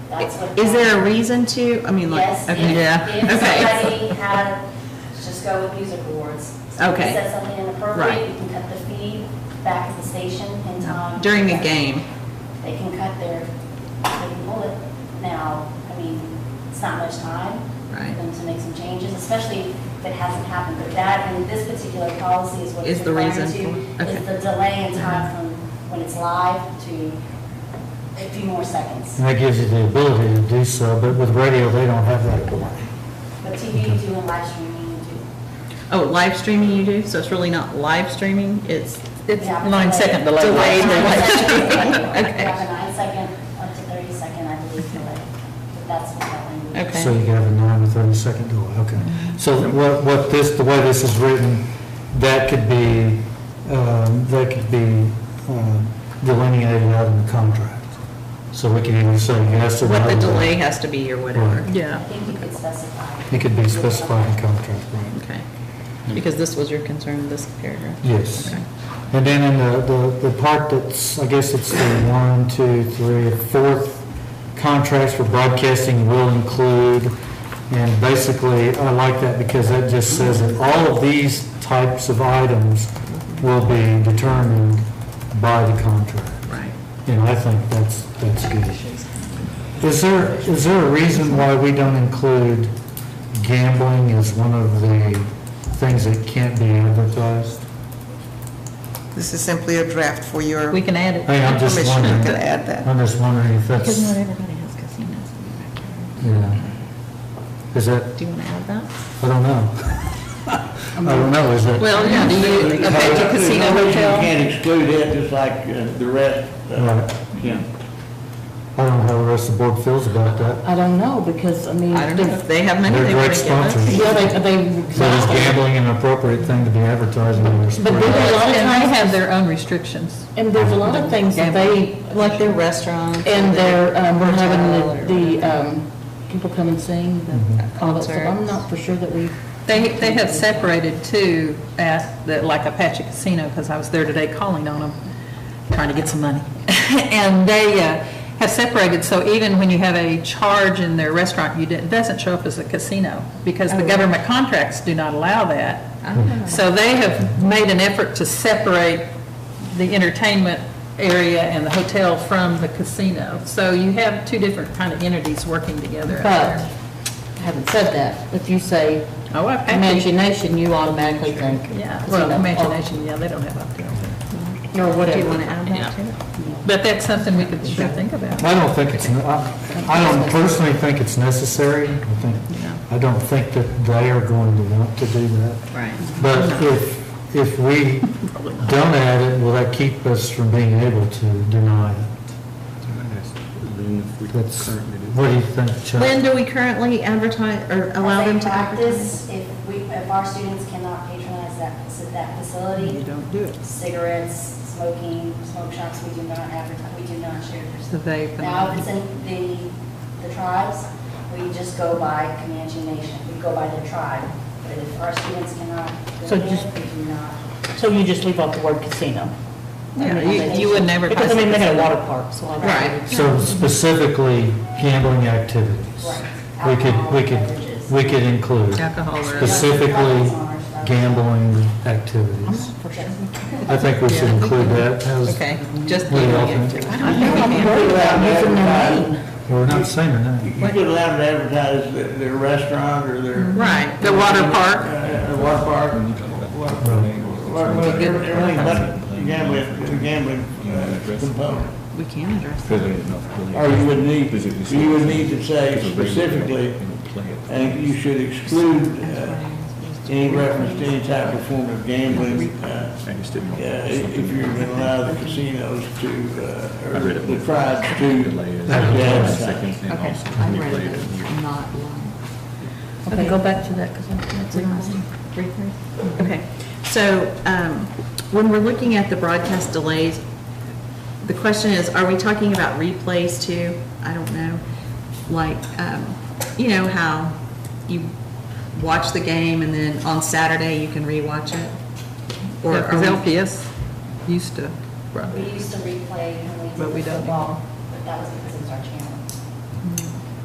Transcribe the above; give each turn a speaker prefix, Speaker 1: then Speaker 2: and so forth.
Speaker 1: That's what.
Speaker 2: Is there a reason to, I mean, like,
Speaker 1: Yes, if,
Speaker 2: okay, yeah,
Speaker 1: if
Speaker 2: okay.
Speaker 1: somebody had, just go with music awards. Somebody
Speaker 2: Okay.
Speaker 1: Said something
Speaker 2: Right.
Speaker 1: inappropriate, you can cut the feed back at the station in time.
Speaker 2: During the game,
Speaker 1: They can cut their, they can pull it now, I mean, it's not much time.
Speaker 2: Right.
Speaker 1: For them to make some changes, especially if it hasn't happened, but that, and this particular policy is what
Speaker 2: Is
Speaker 1: it's
Speaker 2: the
Speaker 1: referring to.
Speaker 2: reason for- okay.
Speaker 1: Is the delay in time from when it's live to uh, a few more seconds.
Speaker 3: And that gives you the ability to do so, but with radio, they don't have that ability.
Speaker 1: But TV, you do and live streaming, you do.
Speaker 2: oh, live streaming you do, so it's really not live streaming, it's
Speaker 4: It's
Speaker 1: Yeah.
Speaker 4: nine second delay.
Speaker 2: Delayed delay.
Speaker 1: Okay.
Speaker 2: Okay.
Speaker 1: You have a nine second up to thirty second, I believe, delay, but that's what that language.
Speaker 2: Okay.
Speaker 3: So you have a nine to 30 second delay, okay. So what, what this, the way this is written, that could be, um, that could be um, delineated out in the contract. So we can either say yes or no.
Speaker 2: what the delay has to be or whatever.
Speaker 3: Right.
Speaker 1: I
Speaker 4: Yeah.
Speaker 1: think you could specify.
Speaker 3: It could be specified in contract, right?
Speaker 2: Okay, because this was your concern, this paragraph?
Speaker 3: Yes.
Speaker 2: Okay.
Speaker 3: And then in the, the, the part that's, I guess it's the one, two, three, fourth, contracts for broadcasting will include, and basically, I like that because that just says that all of these types of items will be determined by the contract.
Speaker 2: Right.
Speaker 3: And I think that's, that's good. Is there, is there a reason why we don't include gambling as one of the things that can't be advertised?
Speaker 5: This is simply a draft for your,
Speaker 2: We can add it.
Speaker 3: Hey, I'm just
Speaker 2: Commissioner.
Speaker 3: wondering.
Speaker 5: you can add that.
Speaker 3: I'm just wondering if that's,
Speaker 4: Because not everybody has casinos in their backyard.
Speaker 3: yeah. Is that,
Speaker 2: Do you want to add that?
Speaker 3: I don't know. I don't know, is that?
Speaker 2: Well, yeah, do you, affect the casino
Speaker 6: There's no reason You
Speaker 2: hotel?
Speaker 6: can't exclude it, just like uh, the rest. uh,
Speaker 3: Right.
Speaker 6: Yeah.
Speaker 3: I don't know how the rest of the board feels about that.
Speaker 7: I don't know, because, I mean,
Speaker 2: I don't know,
Speaker 7: they-
Speaker 2: if they have money
Speaker 3: They're
Speaker 2: they want
Speaker 3: great
Speaker 2: to give us.
Speaker 3: sponsors.
Speaker 7: yeah, they, they.
Speaker 3: So is gambling an appropriate thing to be advertising in your
Speaker 7: But
Speaker 3: sport?
Speaker 7: then- A lot
Speaker 4: And
Speaker 7: of
Speaker 4: they
Speaker 7: times-
Speaker 4: have their own restrictions.
Speaker 7: And there's a lot of things that they,
Speaker 2: Like their restaurant.
Speaker 7: and they're, um, we're having
Speaker 2: hotel
Speaker 7: the,
Speaker 2: or-
Speaker 7: the, um, people come and sing, the, all that stuff. I'm not for sure that we.
Speaker 4: They, they have separated too, at, the- like Apache Casino, because I was there today calling on them, trying to get some money. And they uh, have separated, so even when you have a charge in their restaurant, you didn't, doesn't show up as a casino, because the government contracts do not allow that. So they have made an effort to separate the entertainment area and the hotel from the casino. So you have two different kind of entities working together out
Speaker 7: But,
Speaker 4: there.
Speaker 7: having said that, if you say
Speaker 4: Oh, Apache.
Speaker 7: imagination, you automatically think.
Speaker 4: Yeah,
Speaker 7: casino
Speaker 4: well,
Speaker 2: oh.
Speaker 7: or-
Speaker 4: imagination, yeah, they don't have up
Speaker 7: Or
Speaker 2: Do you
Speaker 7: whatever.
Speaker 2: want to add that to it?
Speaker 4: But that's something we could sure think about.
Speaker 3: I don't think it's, ne- I I don't personally think it's necessary. I think, I don't think that they are going to want to do that.
Speaker 2: Right.
Speaker 3: But if, if we don't add it, will that keep us from being able to deny it? That's, what do you think, Chuck?
Speaker 2: When do we currently advertise or allow
Speaker 1: As a
Speaker 2: them to advertise?
Speaker 1: Practice, if we, if our students cannot patronize that, faci- that facility.
Speaker 5: You don't do it.
Speaker 1: Cigarettes, smoking, smoke shops, we do not advertise, we do not share. their
Speaker 4: The vape and-
Speaker 1: Now, if it's in the, the tribes, we just go by Comanche Nation, we go by the tribe. But if our students cannot,
Speaker 7: So
Speaker 1: go in,
Speaker 7: just-
Speaker 1: we do not.
Speaker 7: So you just leave out the word casino?
Speaker 4: Yeah, you- you would never
Speaker 7: Because
Speaker 4: pass
Speaker 7: I
Speaker 4: a
Speaker 7: mean, they got a
Speaker 4: casino.
Speaker 7: water park, so. I don't-
Speaker 2: Right.
Speaker 3: So specifically gambling activities.
Speaker 1: Right.
Speaker 3: We could, we could,
Speaker 1: Beverages.
Speaker 3: we could include
Speaker 4: Alcohol or-
Speaker 3: specifically gambling activities. I think we should include that as,
Speaker 2: Okay, just
Speaker 3: What do
Speaker 2: leaving
Speaker 3: y'all
Speaker 2: it.
Speaker 3: think?
Speaker 2: I don't think we can.
Speaker 3: we're not saying that.
Speaker 6: You could allow them to advertise their- their restaurant or their.
Speaker 2: Right, the water
Speaker 6: Uh,
Speaker 2: park,
Speaker 6: uh, Water park, and what- what- what- everything but gambling, the gambling uh, component.
Speaker 2: we can address that.
Speaker 6: Or
Speaker 8: Or
Speaker 6: you would need, you would need to say specifically, and you should exclude uh, any reference to any type of form of gambling. uh, uh, If you're going to allow the casinos to, uh, or the tribes to. advertise.
Speaker 2: Okay, I read it, I'm not lying.
Speaker 7: Okay, go back to that, because that's interesting.
Speaker 2: Okay, so um, when we're looking at the broadcast delays, the question is, are we talking about replays too? I don't know, like, um, you know how you watch the game and then on Saturday you can rewatch it? Or
Speaker 4: Yeah,
Speaker 2: are
Speaker 4: 'cause
Speaker 5: um,
Speaker 2: we-
Speaker 4: LPS used to,
Speaker 1: We used to replay when we
Speaker 4: But we
Speaker 1: did the
Speaker 4: don't
Speaker 1: football, but that was because